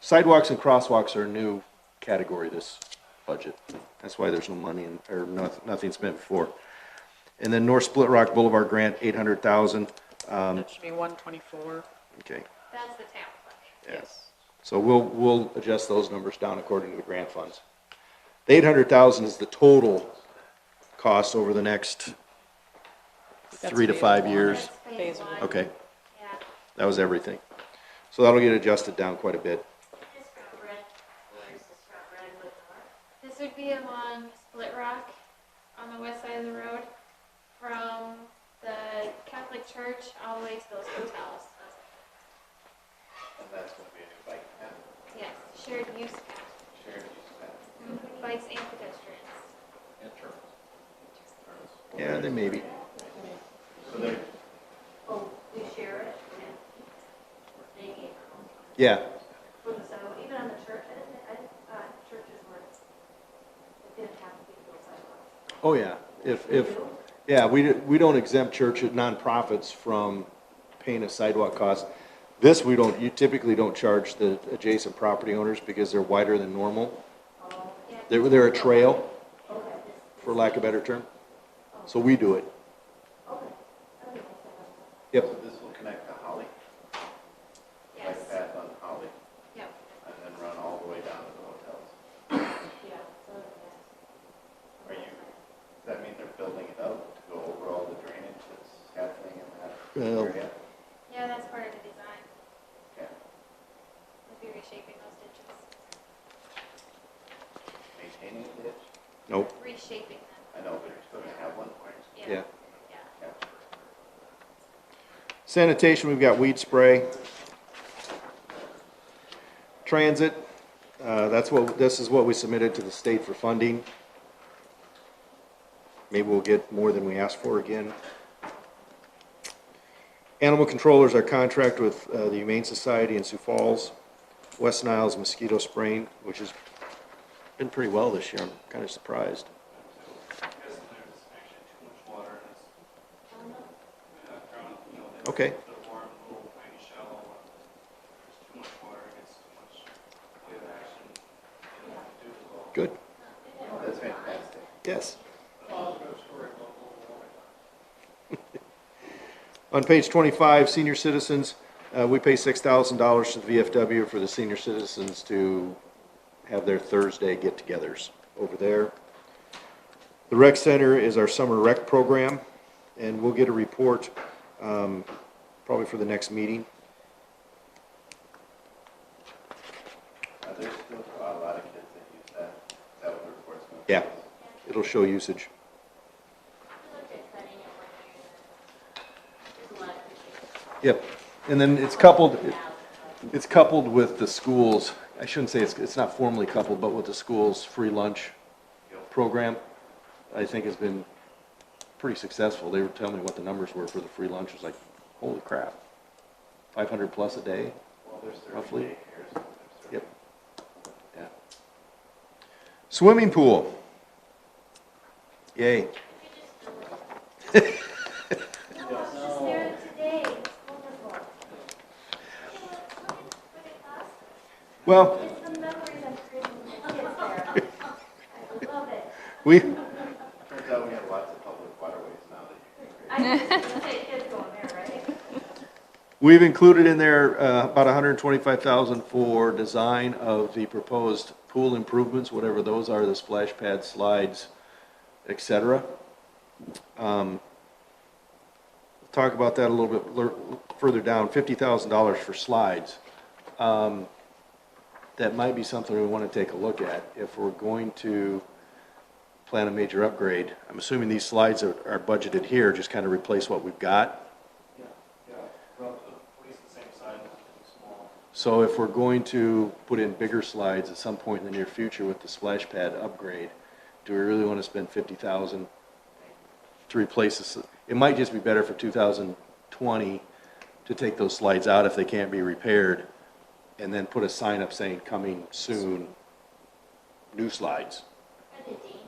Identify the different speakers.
Speaker 1: sidewalks and crosswalks are a new category this budget. That's why there's no money in, or noth- nothing's been before. And then North Split Rock Boulevard grant, eight hundred thousand,
Speaker 2: That should be one twenty-four.
Speaker 1: okay.
Speaker 3: That's the town fund.
Speaker 1: Yes. So we'll, we'll adjust those numbers down according to the grant funds. The eight hundred thousand is the total cost over the next three to
Speaker 2: phase
Speaker 1: five
Speaker 2: one.
Speaker 1: years.
Speaker 3: Phase
Speaker 2: Phase
Speaker 3: one,
Speaker 2: one.
Speaker 1: Okay,
Speaker 3: Yeah,
Speaker 1: that was everything. So that'll get adjusted down quite a bit.
Speaker 3: this from Red, where's this from Redwood North? This would be along Split Rock on the west side of the road from the Catholic church all the way to those hotels.
Speaker 4: And that's gonna be a new bike path,
Speaker 3: Yes, shared use path,
Speaker 4: shared use path,
Speaker 3: bikes and pedestrians.
Speaker 4: and turtles. Turtles.
Speaker 1: Yeah, there may be.
Speaker 4: So there,
Speaker 5: Oh, we share it, and they gave
Speaker 1: Yeah,
Speaker 5: them. So even on the church, I didn't, I, didn't- uh, churches were, it didn't have to be built sidewalks.
Speaker 1: oh yeah. If, if, yeah, we, d- we don't exempt church, nonprofits from paying a sidewalk cost. This, we don't, you typically don't charge the adjacent property owners because they're wider than normal. They're, they're a trail, for lack of a better term. So we do it.
Speaker 4: so
Speaker 1: Yep,
Speaker 4: this will connect to Holly,
Speaker 3: Yes,
Speaker 4: bike path on Holly,
Speaker 3: yep.
Speaker 4: and then run all the way down to the hotels.
Speaker 5: Yeah, so, yeah.
Speaker 4: Are you, does that mean they're building it up to go over all the drainage that's happening in that
Speaker 1: Well-
Speaker 4: area?
Speaker 3: Yeah, that's part of the design,
Speaker 4: Okay,
Speaker 3: would be reshaping those ditches,
Speaker 4: maintaining the ditch,
Speaker 1: nope,
Speaker 3: reshaping them,
Speaker 4: I know, but you're still gonna have one point.
Speaker 1: yeah.
Speaker 3: yeah, yeah.
Speaker 1: Sanitation, we've got weed spray. Transit, uh, that's what, this is what we submitted to the state for funding. Maybe we'll get more than we asked for again. Animal controllers, our contract with uh, the Humane Society in Sioux Falls, West Niles mosquito spraying, which has been pretty well this year, I'm kind of surprised. Okay. Good,
Speaker 4: That's fantastic.
Speaker 1: yes. On page 25, senior citizens, uh, we pay $6,000 to the VFW for the senior citizens to have their Thursday get-togethers over there. The rec center is our summer rec program, and we'll get a report um, probably for the next meeting.
Speaker 4: Now, there's still a lot of kids that use that, is that what the report's gonna?
Speaker 1: Yeah, it'll show usage. Yep, and then it's coupled, it's coupled with the schools, I shouldn't say it's, it's not formally coupled, but with the school's free lunch program, I think has been pretty successful. They were telling me what the numbers were for the free lunch, it's like, holy crap, five hundred plus a day?
Speaker 4: Well, there's
Speaker 1: Roughly.
Speaker 4: thirty daycares, there's
Speaker 1: Yep. Yeah. Swimming pool. Yay.
Speaker 3: No, I was just there today. It's wonderful.
Speaker 1: Well,
Speaker 3: It's the memories I'm creating with my kids there. I love it.
Speaker 1: we,
Speaker 4: Turns out we have lots of public waterways now that you can create.
Speaker 5: I just, say kids going there, right?
Speaker 1: We've included in there uh, about 125,000 for design of the proposed pool improvements, whatever those are, the splash pad slides, et cetera. Um, Talk about that a little bit lear- further down, $50,000 for slides. Um, That might be something we want to take a look at if we're going to plan a major upgrade. I'm assuming these slides are are budgeted here, just kind of replace what we've got. So if we're going to put in bigger slides at some point in the near future with the splash pad upgrade, do we really want to spend fifty thousand to replace this? It might just be better for two thousand twenty to take those slides out if they can't be repaired, and then put a sign up saying, coming soon, new slides.
Speaker 3: For the D.